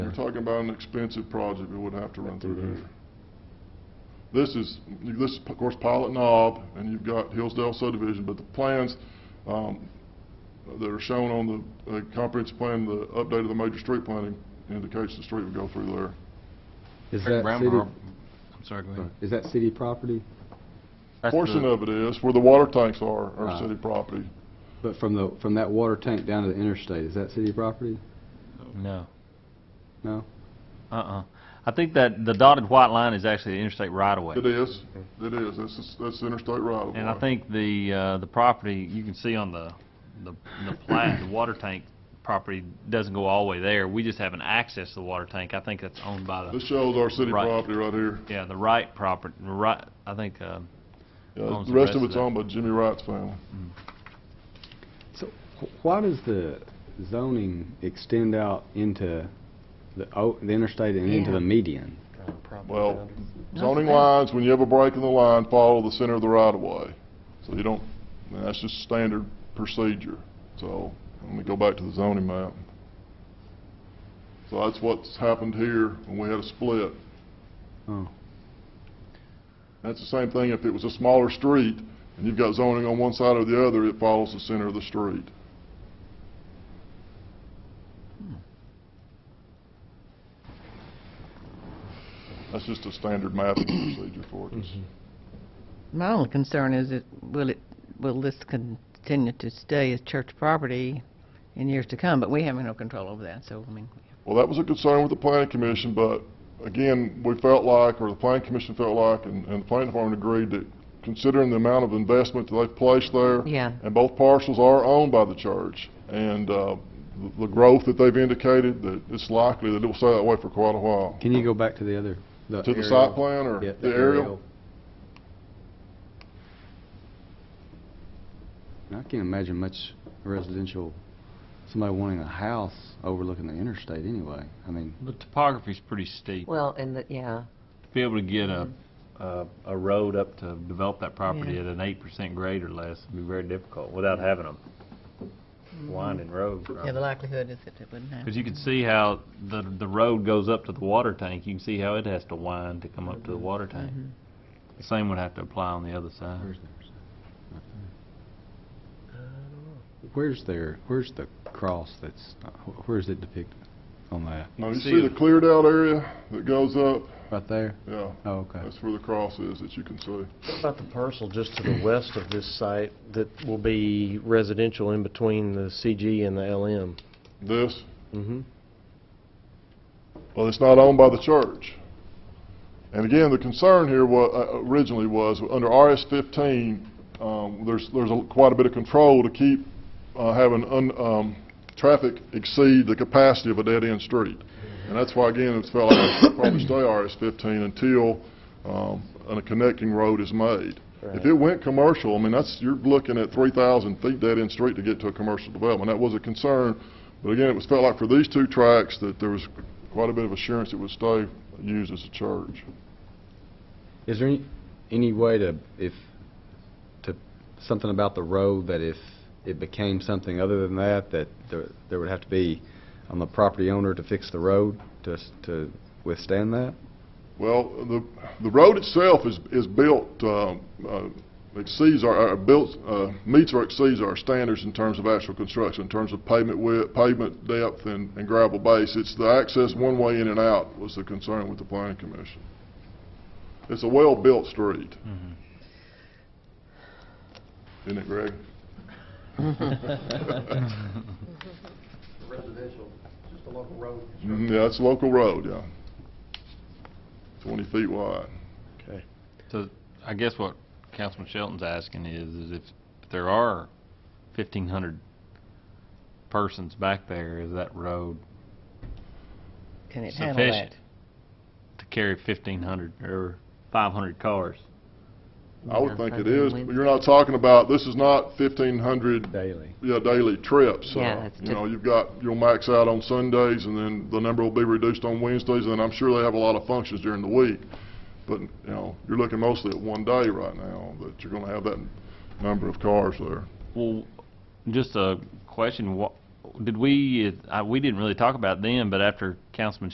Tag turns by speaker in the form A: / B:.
A: you're talking about an expensive project, it would have to run through
B: Mhm.
A: there.
C: Mm-hmm.
A: This is, this is, of course, Pilot Knob, and you've got Hillsdale subdivision, but the plans um, that are shown on the uh, comprehensive plan, the update of the major street planning indicates the street would go through there.
B: Is
D: Rick
B: that
D: Brown,
B: city,
D: or- I'm sorry, go ahead.
B: is that city property?
D: That's
A: Portion
D: the-
A: of it is, where the water tanks are, are
C: Ah.
B: Right.
A: city property.
B: But from the, from that water tank down to the interstate, is that city property?
C: No,
B: No?
C: uh-uh. I think that the dotted white line is actually the interstate right-of-way.
A: It is, it is, that's, that's interstate right of way.
C: And I think the, uh, the property, you can see on the, the the plat, the water tank property doesn't go all the way there. We just haven't accessed the water tank. I think that's owned by
A: This
C: the,
A: shows our city
C: Right.
A: property right here.
C: yeah, the Wright property, the Wright, I think, uh,
A: Yeah,
C: Owns
A: The
C: the
A: rest of
C: rest of
A: it's
C: that.
A: owned by Jimmy Wright's family.
B: So wh- why does the zoning extend out into the, o- the interstate and into
E: Yeah.
B: the median?
A: Well,
E: No,
A: zoning
E: that's-
A: lines, when you have a break in the line, follow the center of the right of way. So you don't, I mean, that's just standard procedure. So, let me go back to the zoning map. So that's what's happened here when we had a split.
B: Oh,
A: That's the same thing if it was a smaller street and you've got zoning on one side or the other, it follows the center of the street. That's just a standard mapping procedure for it.
E: My only concern is it, will it, will this continue to stay as church property in years to come? But we have no control over that, so, I mean,
A: Well, that was a concern with the planning commission, but again, we felt like, or the planning commission felt like, and, and the planning department agreed that considering the amount of investment that they've placed there.
E: Yeah.
A: And both parcels are owned by the church, and, uh, the- the growth that they've indicated, that it's likely that it will stay that way for quite a while.
B: can you go back to the other?
A: To the
B: aerial?
A: site plan or
B: Yeah,
A: the aerial?
B: I can't imagine much residential, somebody wanting a house overlooking the interstate anyway. I mean,
C: the topography's pretty steep.
F: Well, and the, yeah,
C: To be able to get a, a, a road up to develop that property
E: Yeah.
C: at an eight percent grade or less would be very difficult without having a winding road.
E: yeah, the likelihood is that it wouldn't happen.
C: Because you can see how the, the road goes up to the water tank, you can see how it has to wind to come up to the water tank.
E: Mm-hmm.
C: The same would have to apply on the other side.
B: where's the, where's their, where's the cross that's, wh- where is it depicted on that?
A: Now, you
C: See
A: see the
C: it.
A: cleared out area that goes up?
B: Right there?
A: Yeah,
B: Oh, okay.
A: that's where the cross is that you can see.
G: What about the parcel just to the west of this site that will be residential in between the CG and the LM?
A: This,
G: Mm-hmm.
A: Well, it's not owned by the church. And again, the concern here wa- uh, originally was, under RS 15, um, there's, there's a- quite a bit of control to keep uh, having un- um, traffic exceed the capacity of a dead-end street. And that's why, again, it's felt like it should probably stay RS 15 until um, a connecting road is made. If
G: Right.
A: it went commercial, I mean, that's, you're looking at 3,000 feet dead-end street to get to a commercial development. That was a concern, but again, it was felt like for these two tracks that there was quite a bit of assurance it would stay used as a church.
B: Is there any, any way to, if, to, something about the road that if it became something other than that, that there, there would have to be on the property owner to fix the road to, s- to withstand that?
A: Well, the, the road itself is, is built, um, uh, exceeds our, our built, uh, meets or exceeds our standards in terms of actual construction, in terms of pavement width, pavement depth and, and gravel base. It's the access one way in and out was the concern with the planning commission. It's a well-built street.
C: Mm-hmm.
A: Isn't it, Greg?
H: residential, just a local road.
A: Mhm, Yeah, it's a local road, yeah. Twenty feet wide.
G: Okay.
C: So I guess what Councilman Shelton's asking is, is if there are fifteen hundred persons back there, is that road
E: Can it handle
C: sufficient
E: that?
C: to carry fifteen hundred or five hundred cars?
A: I would
F: Yeah,
A: think it
F: Sunday and
A: is, but
F: Wednesday.
A: you're not talking about, this is not fifteen hundred
B: Daily.
A: Yeah, daily trips.
F: Yeah,
A: Uh,
F: it's
A: You
F: just-
A: know, you've got, you'll max out on Sundays, and then the number will be reduced on Wednesdays, and I'm sure they have a lot of functions during the week. But, you know, you're looking mostly at one day right now, that you're gonna have that number of cars there.
C: Well, just a question, what, did we, I, we didn't really talk about them, but after Councilman